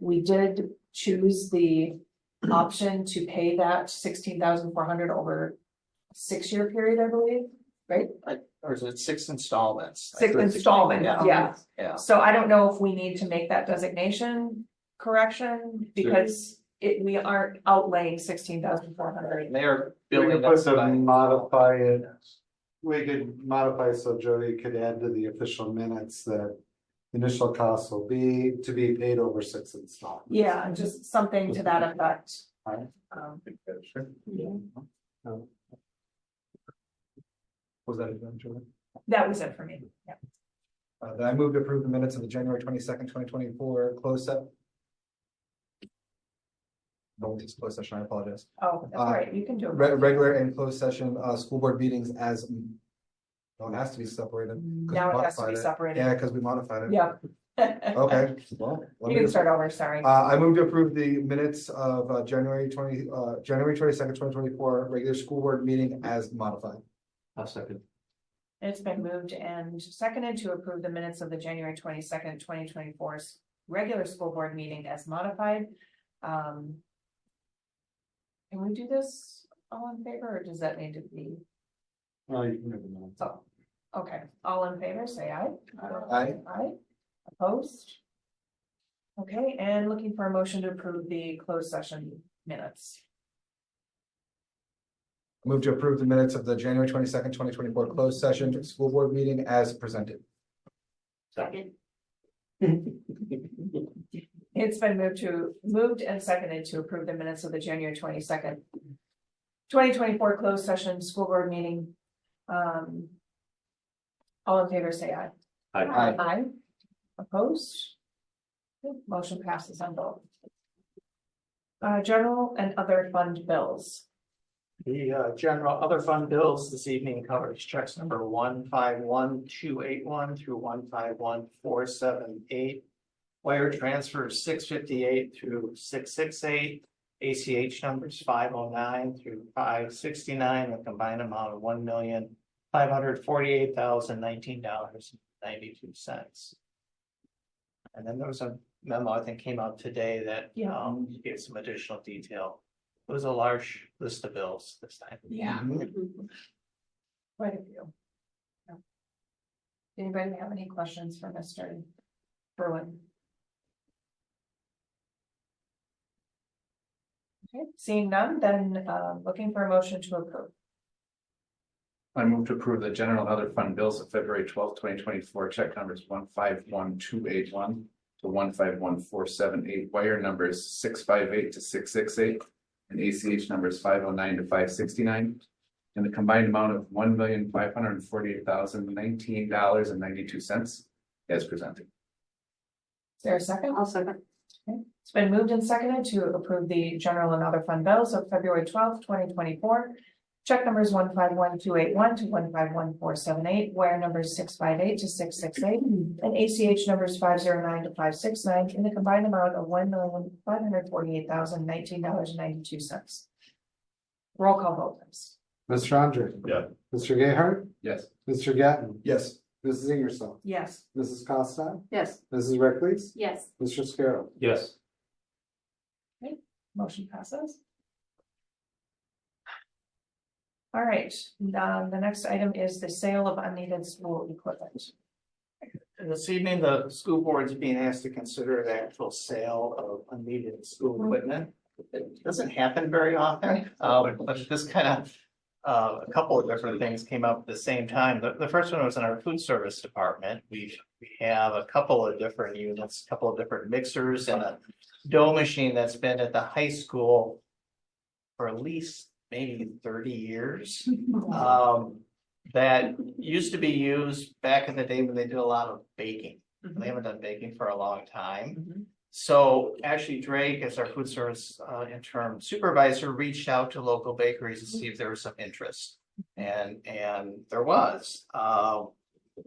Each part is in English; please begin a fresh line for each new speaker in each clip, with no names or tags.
we did choose the option to pay that sixteen thousand four hundred over six-year period, I believe.
Or is it six installments?
Six installment, yeah.
Yeah,
So I don't know if we need to make that designation correction because it, we aren't outlaying sixteen thousand four hundred.
and they are
We
building
could
up.
put the modify it. We could modify so Jody could add to the official minutes that initial costs will be to be paid over six installments.
Yeah, just something to that effect.
Alright.
Um,
Oh. Was that eventually?
that was it for me, yeah.
Uh, then I move to approve the minutes of the January twenty-second, twenty twenty-four close up. No, it's closed session, I apologize.
Oh, that's
Uh,
right, you can do
Re-
it.
regular and closed session, uh, school board meetings as. No, it has to be separated.
Now it has to be separated.
Yeah, because we modified it.
Yeah.
Okay, well.
You
let me
can
just-
start over, sorry.
Uh, I move to approve the minutes of, uh, January twenty, uh, January twenty-second, twenty twenty-four, regular school board meeting as modified.
I'll second.
It's been moved and seconded to approve the minutes of the January twenty-second, twenty twenty-four's regular school board meeting as modified. Um. Can we do this all in favor, or does that need to be,
Oh, you can move them on.
oh, okay, all in favor, say aye.
Aye.
Aye, opposed? Okay, and looking for a motion to approve the closed session minutes.
Move to approve the minutes of the January twenty-second, twenty twenty-four closed session, school board meeting as presented.
Second. It's been moved to, moved and seconded to approve the minutes of the January twenty-second. Twenty twenty-four closed session, school board meeting. Um. All in favor, say aye.
Aye.
Aye. Opposed? Motion passes on both. Uh, general and other fund bills.
The uh, general other fund bills this evening covers checks number one five one two eight one through one five one four seven eight. Wire transfers six fifty-eight through six six eight, ACH numbers five oh nine through five sixty-nine, a combined amount of one million five hundred forty-eight thousand nineteen dollars ninety-two cents. And then there was a memo, I think, came out today that
Yeah.
um gave some additional detail. It was a large list of bills this time.
Yeah.
Mm-hmm.
Mm-hmm. Quite a few. Yeah. Anybody have any questions for Mr. Berwin? Okay, seeing none, then uh looking for a motion to approve.
I move to approve the general and other fund bills of February twelfth, twenty twenty-four, check numbers one five one two eight one to one five one four seven eight, wire numbers six five eight to six six eight, and ACH numbers five oh nine to five sixty-nine, and the combined amount of one million five hundred and forty-eight thousand nineteen dollars and ninety-two cents as presented.
Is there a second?
I'll second.
It's been moved and seconded to approve the general and other fund bills of February twelfth, twenty twenty-four. Check numbers one five one two eight one to one five one four seven eight, wire numbers six five eight to six six eight, and ACH numbers five zero nine to five six nine in the combined amount of one million five hundred forty-eight thousand nineteen dollars and ninety-two cents. Roll call vote, please.
Mr. Andre.
Yeah.
Mr. Gayheart,
Yes.
Mr. Gatton,
Yes.
Mrs. Ingersoll,
Yes.
Mrs. Costa,
Yes.
Mrs. Reckles,
Yes.
Mr. Scarrow.
Yes.
Motion passes. All right, um, the next item is the sale of unneeded school equipment.
And this evening, the school board's being asked to consider the actual sale of unneeded school equipment. It doesn't happen very often, uh, but- but this kind of, uh, a couple of different things came up at the same time. The, the first one was in our food service department. We, we have a couple of different units, a couple of different mixers and a dough machine that's been at the high school for at least maybe thirty years. um, that used to be used back in the day when they did a lot of baking. They haven't done baking for a long time.
Mm-hmm.
So actually Drake, as our food service uh interim supervisor, reached out to local bakeries to see if there was some interest. And and there was, uh,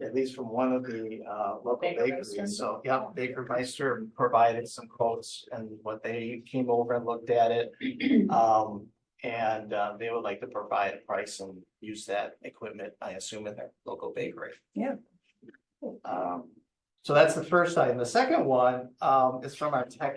at least from one of the uh local
Baker Meister?
bakeries. So, yeah, Baker Meister provided some quotes and what they came over and looked at it. Um, and uh they would like to provide a price and use that equipment, I assume, in their local bakery.
Yeah.
Um, so that's the first item. The second one um is from our tech